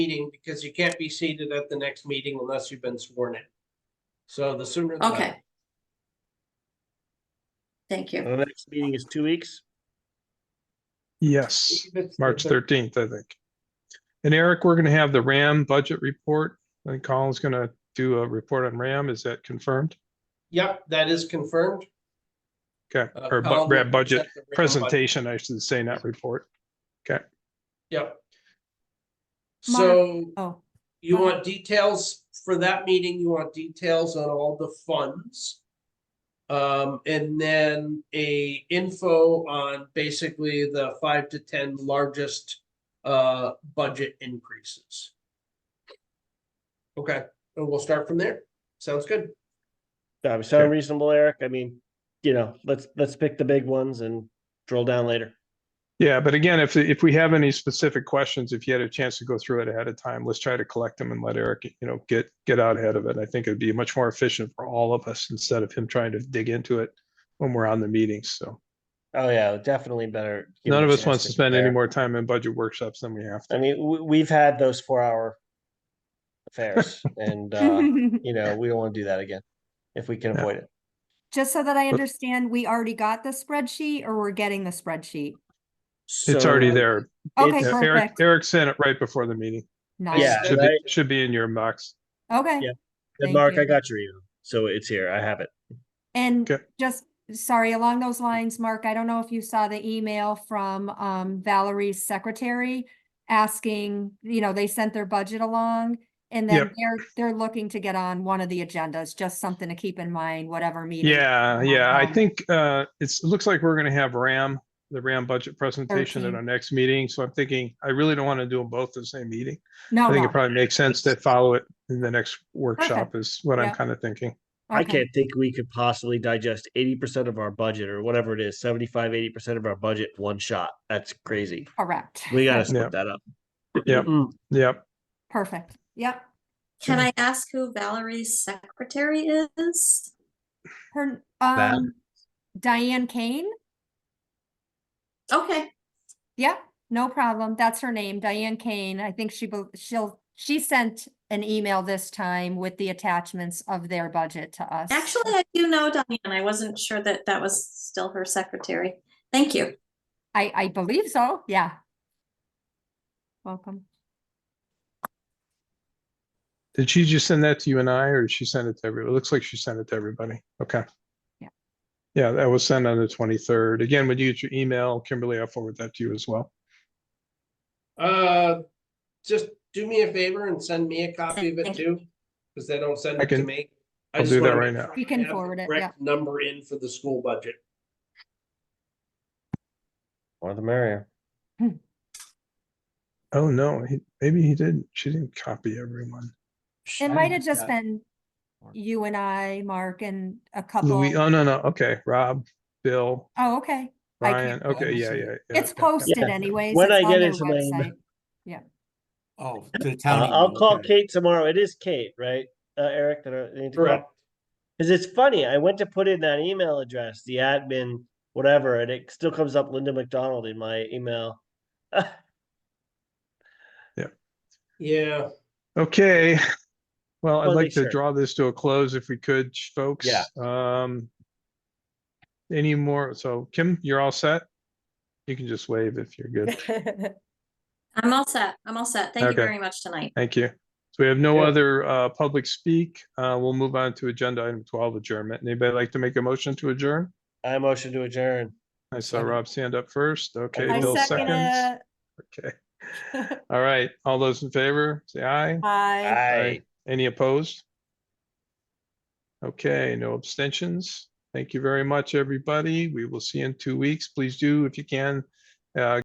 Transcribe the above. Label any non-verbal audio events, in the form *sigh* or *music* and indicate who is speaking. Speaker 1: meeting because you can't be seated at the next meeting unless you've been sworn in. So the sooner. the better.
Speaker 2: Okay. Thank you.
Speaker 3: The next meeting is two weeks.
Speaker 4: Yes,
Speaker 1: If it's-
Speaker 4: March
Speaker 1: if it's-
Speaker 4: thirteenth, I think. And Eric, we're gonna have the RAM budget report. I think Colin's gonna do a report on RAM. Is that confirmed?
Speaker 1: Yep, that is confirmed.
Speaker 4: Okay,
Speaker 1: Uh,
Speaker 4: or bu-
Speaker 1: Colin will
Speaker 4: RAM budget
Speaker 1: present the RAM budget.
Speaker 4: presentation, I should say, not report.
Speaker 1: Yep.
Speaker 5: Mark-
Speaker 1: So
Speaker 5: Oh,
Speaker 1: you
Speaker 5: go ahead.
Speaker 1: want details for that meeting, you want details on all the funds. Um, and then a info on basically the five to ten largest uh budget increases. Okay, and we'll start from there. Sounds good.
Speaker 3: That would Uh, sound reasonable, Eric. I mean, you know, let's, let's pick the big ones and drill down later.
Speaker 4: Yeah, but again, if, if we have any specific questions, if you had a chance to go through it ahead of time, let's try to collect them and let Eric, you know, get, get out ahead of it. I think it'd be much more efficient for all of us instead of him trying to dig into it when we're on the meetings, so.
Speaker 3: Oh, yeah, definitely better. give
Speaker 4: None
Speaker 3: him
Speaker 4: of
Speaker 3: a
Speaker 4: us
Speaker 3: chance
Speaker 4: wants to spend any
Speaker 3: prepare.
Speaker 4: more time in budget workshops than we have to.
Speaker 3: I mean, we, we've had those four hour
Speaker 4: *laughs*
Speaker 3: affairs
Speaker 5: *laughs*
Speaker 3: and, uh, you know, we don't want to do that again if we can
Speaker 4: No.
Speaker 3: avoid it.
Speaker 5: just so that I
Speaker 4: But-
Speaker 5: understand, we already got the spreadsheet or we're getting the spreadsheet?
Speaker 4: It's already
Speaker 3: So- uh,
Speaker 4: there.
Speaker 5: Okay,
Speaker 3: It's-
Speaker 4: Yeah, Eric,
Speaker 5: perfect.
Speaker 4: Eric sent it right before the meeting.
Speaker 5: Nice.
Speaker 3: Yeah,
Speaker 4: Should be,
Speaker 3: right.
Speaker 4: should be in your inbox.
Speaker 5: Okay.
Speaker 3: Yeah.
Speaker 5: Thank
Speaker 3: Mark, I
Speaker 5: you.
Speaker 3: got your email. So it's here. I have it.
Speaker 5: And
Speaker 4: Okay.
Speaker 5: just, sorry, along those lines, Mark, I don't know if you saw the email from um Valerie's secretary asking, you know, they sent their budget along and then
Speaker 4: Yep.
Speaker 5: they're, they're looking to get on one of the agendas, just something to keep in mind, whatever meeting.
Speaker 4: Yeah,
Speaker 5: Um,
Speaker 4: yeah, I
Speaker 5: um,
Speaker 4: think, uh, it's, it looks like we're gonna have RAM, the RAM budget presentation at
Speaker 5: 13.
Speaker 4: our next meeting. So I'm thinking, I really don't want to do them both the same meeting.
Speaker 5: No,
Speaker 4: I think
Speaker 5: no.
Speaker 4: it probably makes sense to follow it in the next workshop is what I'm
Speaker 5: Yeah.
Speaker 4: kind of thinking.
Speaker 3: I
Speaker 5: Okay.
Speaker 3: can't think we could possibly digest eighty percent of our budget or whatever it is, 75, 80 percent of our budget one shot. That's crazy.
Speaker 5: Correct.
Speaker 3: We gotta
Speaker 4: Yeah.
Speaker 3: split that up.
Speaker 4: Yep.
Speaker 3: Mm,
Speaker 4: Yep.
Speaker 5: Perfect. Yep.
Speaker 2: Can I ask who Valerie's secretary is?
Speaker 5: Her,
Speaker 3: Val-
Speaker 5: um, Diane Kane?
Speaker 2: Okay,
Speaker 5: Yeah, no problem. That's her name, Diane Kane. I think she, bel- she'll, she sent an email this time with the attachments of their budget to us.
Speaker 2: actually, I do know Diane. I wasn't sure that that was still her secretary. Thank you.
Speaker 5: I, I believe so, yeah. Welcome.
Speaker 4: Did she just send that to you and I, or did she send it to everybody? It looks like she sent it to everybody. Okay.
Speaker 5: Yeah.
Speaker 4: Yeah, that was sent on the twenty-third. Again, when you get your email, Kimberly, I'll forward that to you as well.
Speaker 1: Uh, just do me a favor and send me a copy of it
Speaker 2: Thank
Speaker 1: too, because they don't send
Speaker 4: I
Speaker 1: it to
Speaker 4: can-
Speaker 1: me. I
Speaker 4: I'll
Speaker 1: just
Speaker 4: do that
Speaker 1: wanna
Speaker 4: right
Speaker 1: make
Speaker 4: now.
Speaker 1: sure
Speaker 5: We
Speaker 1: I
Speaker 5: can
Speaker 1: have the
Speaker 5: forward it,
Speaker 1: correct Number in for the school budget.
Speaker 3: More the merrier.
Speaker 4: Oh, no, he, maybe he didn't. She didn't copy everyone.
Speaker 5: It might have just
Speaker 1: Yeah.
Speaker 5: been you and I, Mark, and a couple.
Speaker 4: Louis, oh, no, no, okay, Rob, Bill,
Speaker 5: Oh, okay. I can't
Speaker 4: Ryan, okay, yeah, yeah. yeah,
Speaker 5: It's
Speaker 4: okay.
Speaker 5: posted
Speaker 3: Yeah.
Speaker 5: anyways.
Speaker 3: When
Speaker 5: it's
Speaker 3: I get
Speaker 5: on their
Speaker 3: into my email-
Speaker 5: website.
Speaker 6: Oh, the
Speaker 3: Uh,
Speaker 6: town.
Speaker 3: I'll
Speaker 6: email,
Speaker 3: call
Speaker 6: okay.
Speaker 3: Kate tomorrow. It is Kate, right? Uh, Eric, that I need to call.
Speaker 1: Correct.
Speaker 3: Cause it's funny, I went to put in that email address, the admin, whatever, and it still comes up Linda McDonald in my email. *laughs*
Speaker 1: Yeah,
Speaker 4: Okay, well, I'd
Speaker 3: Well, they
Speaker 4: like to
Speaker 3: sure-
Speaker 4: draw this to a close if we could, sh- folks.
Speaker 3: Yeah.
Speaker 4: Um. Any more, so Kim, you're all set? You can just wave if you're good.
Speaker 5: *laughs*
Speaker 3: *laughs*
Speaker 2: I'm all set. I'm all set. Thank you
Speaker 4: Okay.
Speaker 2: very much tonight.
Speaker 4: Thank you. So we have no
Speaker 3: Yeah.
Speaker 4: other uh public speak. Uh, we'll move on to agenda item twelve adjournment. Anybody like to make a motion to adjourn?
Speaker 3: I motion to adjourn.
Speaker 4: I saw
Speaker 6: Second.
Speaker 4: Rob stand up first. Okay,
Speaker 3: I
Speaker 4: Bill
Speaker 5: I second
Speaker 4: seconds.
Speaker 5: it.
Speaker 4: Okay. All right, all those in favor, say aye.
Speaker 5: Bye.
Speaker 3: Aye.
Speaker 4: Any opposed? Okay, no abstentions. Thank you very much, everybody. We will see you in two weeks. Please do, if you can, uh,